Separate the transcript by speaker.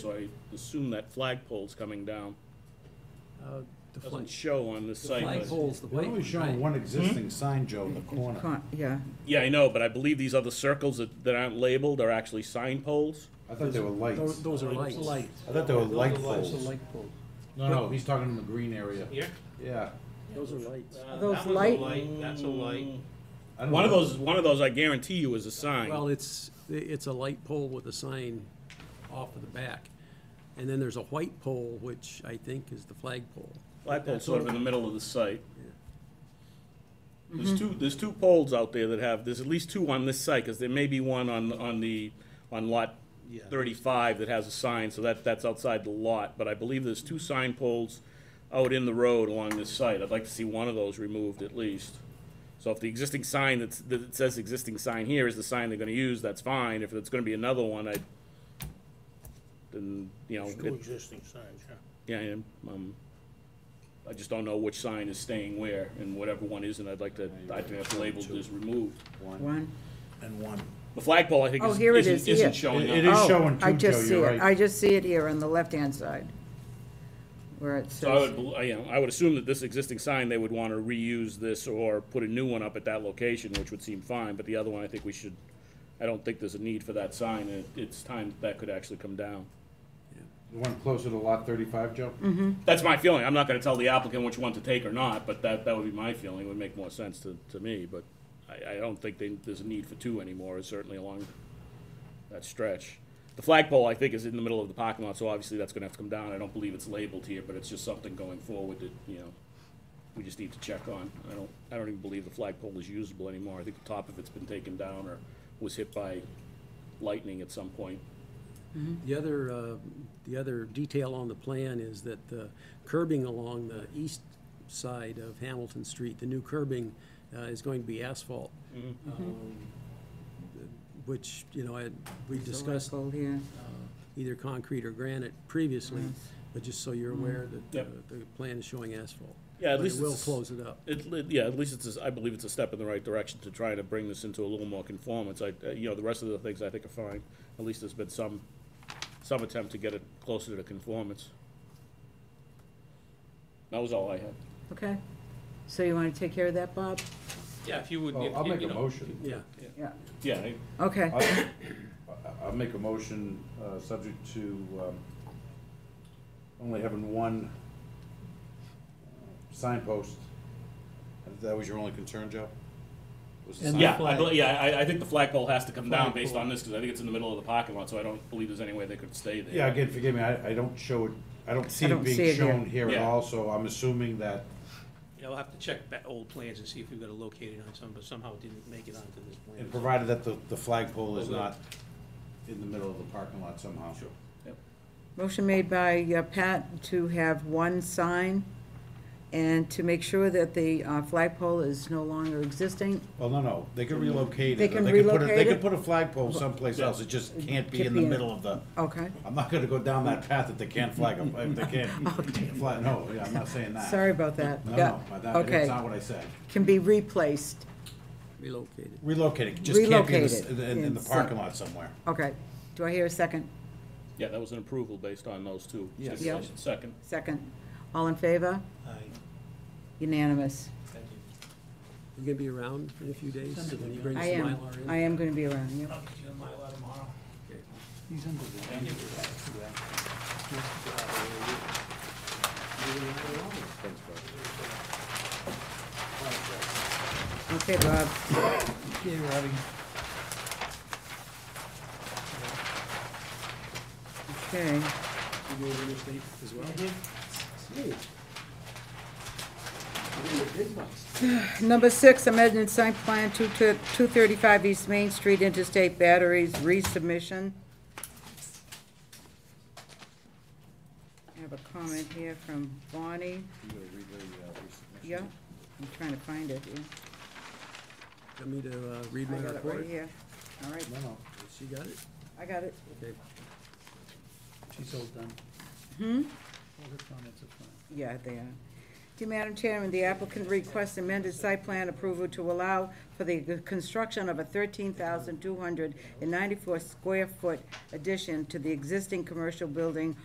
Speaker 1: So I assume that flagpole's coming down.
Speaker 2: Uh, The
Speaker 1: Doesn't
Speaker 2: flag,
Speaker 1: show on the
Speaker 2: the
Speaker 1: site, but,
Speaker 2: flagpole's the
Speaker 3: They're
Speaker 2: white
Speaker 3: only showing
Speaker 2: one, right?
Speaker 3: one existing sign, Joe, in the corner.
Speaker 4: Con- Yeah,
Speaker 1: yeah, I know, but I believe these other circles that, that aren't labeled are actually sign poles.
Speaker 3: I thought they were
Speaker 2: Those-
Speaker 3: lights.
Speaker 2: Those are
Speaker 5: Lights.
Speaker 2: lights.
Speaker 3: I thought they were
Speaker 5: Those are
Speaker 3: light
Speaker 5: lights.
Speaker 2: Those are
Speaker 3: poles.
Speaker 2: light poles.
Speaker 3: No, no, he's talking in the green area.
Speaker 5: Here?
Speaker 3: Yeah.
Speaker 2: Those are lights.
Speaker 5: Uh,
Speaker 4: Those
Speaker 5: that one's a
Speaker 4: light-
Speaker 5: That's a light.
Speaker 3: I don't
Speaker 1: One of
Speaker 3: know.
Speaker 1: those, one of those, I guarantee you, is a
Speaker 2: Well,
Speaker 1: sign.
Speaker 2: it's, it's a light pole with a sign off of the back. And then there's a white pole, which I think is the flagpole.
Speaker 1: Flagpole's sort of in the middle of the site. There's two, there's two poles out there that have, there's at least two on this site, because there may be one on, on the, on lot
Speaker 2: Yeah.
Speaker 1: thirty-five that has a sign, so that, that's outside the lot, but I believe there's two sign poles out in the road along this site. I'd like to see one of those removed at least. So if the existing sign that's, that says existing sign here is the sign they're gonna use, that's fine. If it's gonna be another one, I, then, you know,
Speaker 5: Two
Speaker 1: it-
Speaker 5: existing signs, yeah.
Speaker 1: yeah, I am, um, I just don't know which sign is staying where, and whatever one isn't, I'd like to, I think that's labeled as removed.
Speaker 4: one.
Speaker 3: And one.
Speaker 1: The flagpole, I think,
Speaker 4: Oh,
Speaker 1: is-
Speaker 4: here it
Speaker 1: isn't,
Speaker 4: is, here.
Speaker 1: isn't showing up.
Speaker 3: It is
Speaker 4: Oh,
Speaker 3: showing two,
Speaker 4: I
Speaker 3: Joe,
Speaker 4: just see
Speaker 3: you're
Speaker 4: it.
Speaker 3: right.
Speaker 4: I just see it here on the left-hand side, where it
Speaker 1: So I
Speaker 4: says,
Speaker 1: would, bel- I, you know, I would assume that this existing sign, they would wanna reuse this or put a new one up at that location, which would seem fine, but the other one, I think we should, I don't think there's a need for that sign, and it's time that that could actually come down.
Speaker 3: The one closer to lot thirty-five, Joe? Mm-hmm.
Speaker 1: That's my feeling, I'm not gonna tell the applicant which one to take or not, but that, that would be my feeling, it would make more sense to, to me, but I, I don't think they, there's a need for two anymore, certainly along that stretch. The flagpole, I think, is in the middle of the parking lot, so obviously that's gonna have to come down, I don't believe it's labeled here, but it's just something going forward that, you know, we just need to check on, I don't, I don't even believe the flagpole is usable anymore, I think the top of it's been taken down or was hit by lightning at some point.
Speaker 2: The other, uh, the other detail on the plan is that the curbing along the east side of Hamilton Street, the new curbing, uh, is going to be asphalt.
Speaker 1: Mm-hmm.
Speaker 2: Um, Which, you know, I, we discussed
Speaker 4: Circle here.
Speaker 2: either concrete or granite previously, but just so you're aware that uh,
Speaker 1: Mm-hmm. Yep.
Speaker 2: the plan is showing asphalt.
Speaker 1: Yeah, at
Speaker 2: But
Speaker 1: least
Speaker 2: it will
Speaker 1: it's-
Speaker 2: close it up.
Speaker 1: It, it- yeah, at least it's, a- I believe it's a step in the right direction to try to bring this into a little more conformance. I, uh, you know, the rest of the things I think are fine. At least there's been some, some attempt to get it closer to conformance. That was all I had.
Speaker 4: Okay, so you want to take care of that, Bob?
Speaker 5: Yeah, if you would.
Speaker 3: Well,
Speaker 5: if
Speaker 3: Oh, I'll
Speaker 5: you-
Speaker 3: make
Speaker 5: you
Speaker 3: a
Speaker 5: know,
Speaker 3: motion.
Speaker 2: Yeah,
Speaker 4: Yeah,
Speaker 1: Yeah, I-
Speaker 4: okay,
Speaker 3: I'll I'll make a motion, uh, subject to, um, only having one uh, signpost. That was your only concern, Joe? Was the
Speaker 2: And
Speaker 3: sign-
Speaker 1: yeah, I,
Speaker 2: flag.
Speaker 1: bel- yeah, I, I think the flagpole has to come down based
Speaker 2: Flagpole.
Speaker 1: on this, because I think it's in the middle of the parking lot, so I don't believe there's any way they could stay there.
Speaker 3: Yeah, again, forgive me, I, I don't show it, I don't see
Speaker 4: I
Speaker 3: it
Speaker 4: don't see
Speaker 3: being
Speaker 4: it here.
Speaker 3: shown here at
Speaker 1: Yeah.
Speaker 3: all, so I'm assuming that,
Speaker 5: Yeah, I'll have to check that old plans and see if we've got it located on some, but somehow it didn't make it onto this plan.
Speaker 3: and provided that the, the flagpole is
Speaker 5: Okay.
Speaker 3: not in the middle of the parking lot somehow. Sure.
Speaker 4: motion made by uh, Pat to have one sign, and to make sure that the uh, flagpole is no longer existing,
Speaker 3: Well, no, no, they could relocate it.
Speaker 4: They
Speaker 3: or
Speaker 4: can
Speaker 3: could put a- They
Speaker 4: relocate
Speaker 3: could
Speaker 4: it?
Speaker 3: put a flagpole someplace else, it just can't be
Speaker 4: Can't
Speaker 3: in the
Speaker 4: be in-
Speaker 3: middle of the,
Speaker 4: okay,
Speaker 3: I'm not gonna go down that path if they can't flag, a- if they can't flag, no, yeah, I'm not saying that.
Speaker 4: sorry about that.
Speaker 3: No,
Speaker 4: Yeah.
Speaker 3: no, but that, that's
Speaker 4: Okay.
Speaker 3: not what I said.
Speaker 4: Can be replaced,
Speaker 2: relocated.
Speaker 3: Relocate it, just can't be in the s-
Speaker 4: Relocate it
Speaker 3: in, in the
Speaker 4: in
Speaker 3: parking
Speaker 4: some-
Speaker 3: lot somewhere.
Speaker 4: okay, do I hear a second?
Speaker 1: Yeah, that was an approval based on those two.
Speaker 3: Yes.
Speaker 1: stipulations. Second.
Speaker 4: Second, all in favor?
Speaker 5: Aye,
Speaker 4: Unanimous.
Speaker 5: thank you.
Speaker 2: You gonna be around in a few days when you bring some
Speaker 4: I am,
Speaker 2: Mylar in?
Speaker 4: I am gonna be around, yeah.
Speaker 5: I'll get you a Mylar tomorrow.
Speaker 4: Okay, Bob.
Speaker 6: Okay, Robbie.
Speaker 4: Okay,
Speaker 2: You go over there, Steve, as well?
Speaker 4: number six, amended site plan two thirty-five East Main Street, Interstate Batteries, resubmission. I have a comment here from Bonnie,
Speaker 2: uh,
Speaker 4: yeah, I'm trying to find it, yeah.
Speaker 2: Want me to uh, read my
Speaker 4: I got it right
Speaker 2: report?
Speaker 4: here, all right,
Speaker 3: No, no,
Speaker 2: She got it?
Speaker 4: I got it.
Speaker 2: Okay.
Speaker 6: She's all done. Hmm? All her comments are fine.
Speaker 4: Yeah, they are. Dear Madam Chairman, the applicant requests amended site plan approval to allow for the construction of a thirteen thousand two hundred and ninety-four square foot addition to the existing commercial building